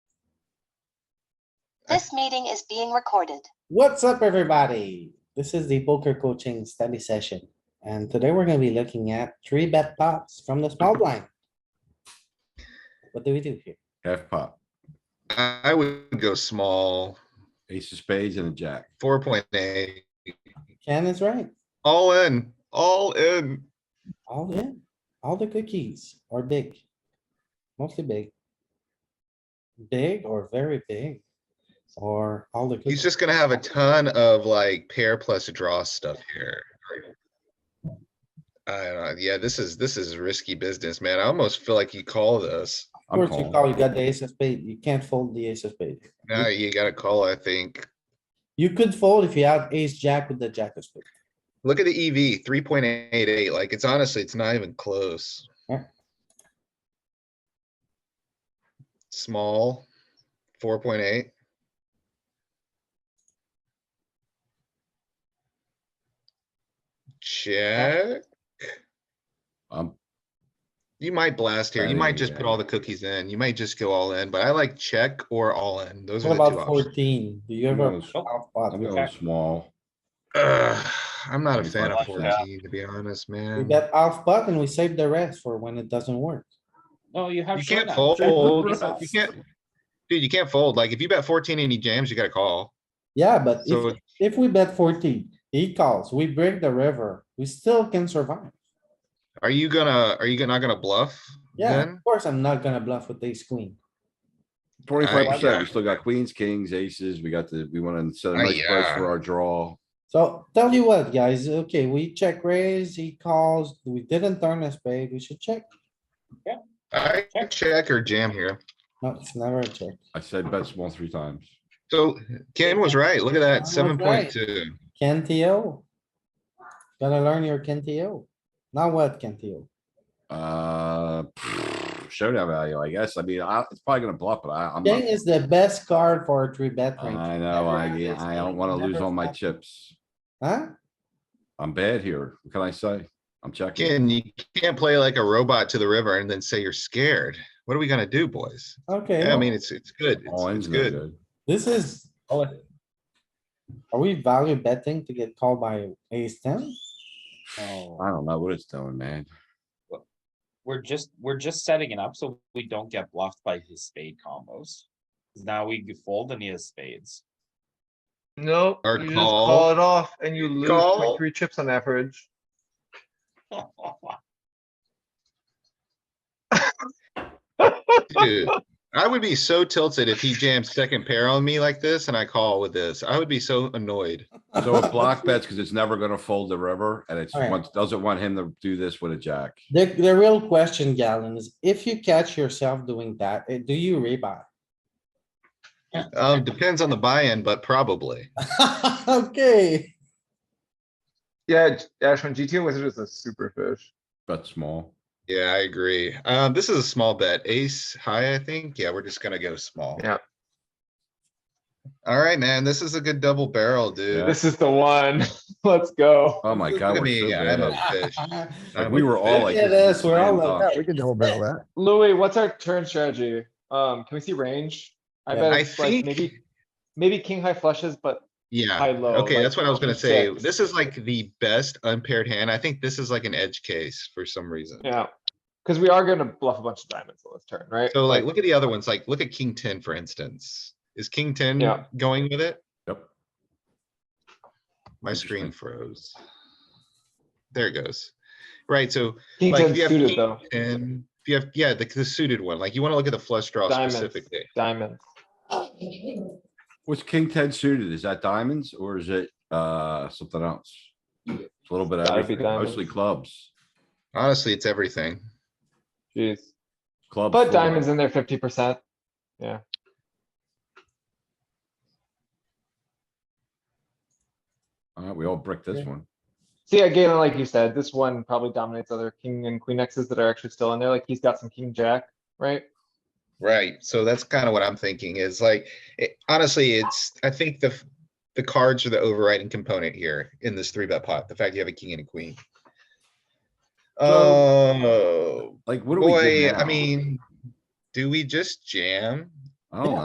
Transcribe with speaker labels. Speaker 1: This meeting is being recorded.
Speaker 2: What's up, everybody? This is the poker coaching study session, and today we're gonna be looking at three bet pops from the small blind. What do we do here?
Speaker 3: Half pop,
Speaker 4: I I would go small,
Speaker 3: ace of spades and a jack.
Speaker 4: four point eight,
Speaker 2: Ken is right,
Speaker 4: all in, all in.
Speaker 2: all in, all the cookies are big, mostly big. Big or very big, or all the.
Speaker 4: He's
Speaker 2: cookies.
Speaker 4: just gonna have a ton of like pair plus draw stuff here. I don't know. Yeah, this is, this is risky business, man. I almost feel like you call this.
Speaker 2: Of
Speaker 3: I'm
Speaker 2: course, you call,
Speaker 3: calling.
Speaker 2: you got the ace of spade, you can't fold the ace of spade.
Speaker 4: Now you gotta call, I think.
Speaker 2: You could fold if you have ace jack with the jack of spade.
Speaker 4: Look at the EV, three point eight eight. Like, it's honestly, it's not even close.
Speaker 2: Yeah.
Speaker 4: Small, four point eight. Check.
Speaker 3: I'm,
Speaker 4: You might blast here. You might just put
Speaker 3: Yeah.
Speaker 4: all the cookies in. You might just go all in, but I like check or all in. Those
Speaker 2: What
Speaker 4: are the two
Speaker 2: about
Speaker 4: options.
Speaker 2: fourteen? Do you
Speaker 3: I'm
Speaker 2: ever?
Speaker 3: gonna s-
Speaker 2: out spot?
Speaker 3: I'm going small.
Speaker 4: Ugh, I'm not a fan of
Speaker 3: 25%.
Speaker 4: fourteen, to be honest,
Speaker 2: We
Speaker 4: man.
Speaker 2: bet half pot and we save the rest for when it doesn't work.
Speaker 5: No, you have.
Speaker 4: You
Speaker 5: showdown.
Speaker 4: can't fold.
Speaker 5: Showdown.
Speaker 4: You can't. Dude, you can't fold. Like, if you bet fourteen and he jams, you gotta call.
Speaker 2: Yeah, but
Speaker 4: So
Speaker 2: if, if we bet fourteen, he calls, we break the river, we still can survive.
Speaker 4: Are you gonna, are you gonna- not gonna bluff?
Speaker 2: Yeah,
Speaker 4: then?
Speaker 2: of course, I'm not gonna bluff with ace queen.
Speaker 3: Twenty-five percent,
Speaker 4: yeah.
Speaker 3: we still got queens, kings, aces, we got the, we wanna set a
Speaker 4: Ah,
Speaker 3: nice price
Speaker 4: yeah.
Speaker 3: for our draw.
Speaker 2: So tell you what, guys, okay, we check raise, he calls, we didn't turn a spade, we should check.
Speaker 4: I
Speaker 5: Check.
Speaker 4: check or jam here.
Speaker 2: No, it's never a check.
Speaker 3: I said bet small three times.
Speaker 4: So Ken was right. Look at that,
Speaker 2: Ken was
Speaker 4: seven
Speaker 2: right.
Speaker 4: point two.
Speaker 2: Ken TO. Gotta learn your Ken TO. Now what, Ken TO?
Speaker 3: Uh, showdown value, I guess. I mean, I, it's probably gonna bluff, but I, I'm,
Speaker 2: King
Speaker 3: not-
Speaker 2: is the best card for a three bet range,
Speaker 3: I know, I,
Speaker 2: Never-
Speaker 3: I don't wanna lose
Speaker 2: never
Speaker 3: all my
Speaker 2: flop.
Speaker 3: chips.
Speaker 2: huh?
Speaker 3: I'm bad here. What can I say? I'm checking.
Speaker 4: Ken, you can't play like a robot to the river and then say you're scared. What are we gonna do, boys?
Speaker 2: Okay.
Speaker 4: Yeah, I mean, it's, it's good. It's,
Speaker 3: All
Speaker 4: it's
Speaker 3: in's no
Speaker 4: good.
Speaker 3: good.
Speaker 2: This is. Are we value betting to get called by ace ten?
Speaker 3: I
Speaker 2: Oh,
Speaker 3: don't know what it's doing, man.
Speaker 5: We're just, we're just setting it up so we don't get bluffed by his spade combos. 'Cause Now we could fold and he has spades.
Speaker 6: Nope,
Speaker 4: Or
Speaker 6: you just
Speaker 4: call.
Speaker 6: call it off and you lose
Speaker 4: Call.
Speaker 6: point three chips on average.
Speaker 4: Dude, I would be so tilted if he jams second pair on me like this and I call with this. I would be so annoyed.
Speaker 3: So it block bets because it's never gonna fold the river and it's
Speaker 2: Alright.
Speaker 3: wants, doesn't want him to do this with a jack.
Speaker 2: The, the real question, Galen, is if you catch yourself doing that, eh, do you rebuy?
Speaker 4: Um, depends on the buy-in, but probably.
Speaker 2: Okay,
Speaker 6: Yeah, J- Ash, when GTA Wizard is a super fish.
Speaker 3: Bet small.
Speaker 4: Yeah, I agree. Um, this is a small bet. Ace high, I think. Yeah, we're just gonna go small.
Speaker 6: Yeah.
Speaker 4: Alright, man, this is a good double barrel,
Speaker 3: Yeah.
Speaker 4: dude.
Speaker 6: This is the one. Let's go.
Speaker 3: Oh my
Speaker 4: Look
Speaker 3: god,
Speaker 4: at
Speaker 3: we're so
Speaker 4: me, I'm a
Speaker 3: bad.
Speaker 4: fish.
Speaker 3: Like,
Speaker 4: I'm
Speaker 3: we
Speaker 4: a
Speaker 3: were all
Speaker 4: fish.
Speaker 3: like.
Speaker 2: Yeah,
Speaker 3: this
Speaker 2: that's-
Speaker 3: is
Speaker 2: we're all
Speaker 3: slam
Speaker 2: like
Speaker 3: dunk.
Speaker 7: we can double barrel that.
Speaker 6: Louis, what's our turn strategy? Um, can we see range? I
Speaker 2: Yeah.
Speaker 6: bet
Speaker 4: I
Speaker 6: it's like
Speaker 4: think-
Speaker 6: maybe, maybe king high flushes, but
Speaker 4: Yeah,
Speaker 6: high low.
Speaker 4: okay,
Speaker 6: like
Speaker 4: that's what I was gonna
Speaker 6: king
Speaker 4: say.
Speaker 6: six.
Speaker 4: This is like the best unpaired hand. I think this is like an edge case for some reason.
Speaker 6: Yeah, cuz we are gonna bluff a bunch of diamonds on this turn, right?
Speaker 4: So like, look at the other ones, like, look at king ten, for instance. Is king ten
Speaker 6: Yeah.
Speaker 4: going with it?
Speaker 3: Yep.
Speaker 4: My screen
Speaker 3: Interesting.
Speaker 4: froze. There it goes. Right, so
Speaker 6: King
Speaker 4: like,
Speaker 6: ten
Speaker 4: if you have
Speaker 6: suited
Speaker 4: king-
Speaker 6: though,
Speaker 4: And if you have, yeah, the, the suited one, like you wanna look at the flush draw
Speaker 6: Diamonds.
Speaker 4: specifically.
Speaker 6: diamonds.
Speaker 3: What's king ten suited? Is that diamonds or is it, uh, something else? It's A little bit of
Speaker 6: Gotta be
Speaker 3: everything, mostly
Speaker 6: diamonds.
Speaker 3: clubs,
Speaker 4: Honestly, it's everything.
Speaker 6: Jeez,
Speaker 3: clubs.
Speaker 6: but
Speaker 3: full.
Speaker 6: diamonds in there fifty percent.
Speaker 3: Alright, we all bricked this one.
Speaker 6: So yeah, Galen, like you said, this one probably dominates other king and queen X's that are actually still in there. Like he's got some king jack, right?
Speaker 4: Right, so that's kind of what I'm thinking is like, it- honestly, it's, I think the, f- the cards are the overriding component here in this three bet pot, the fact you have a king and a queen. Oh,
Speaker 3: Like, what do we do
Speaker 4: boy,
Speaker 3: now?
Speaker 4: I mean, do we just jam?
Speaker 3: I don't Oh.
Speaker 2: Yeah.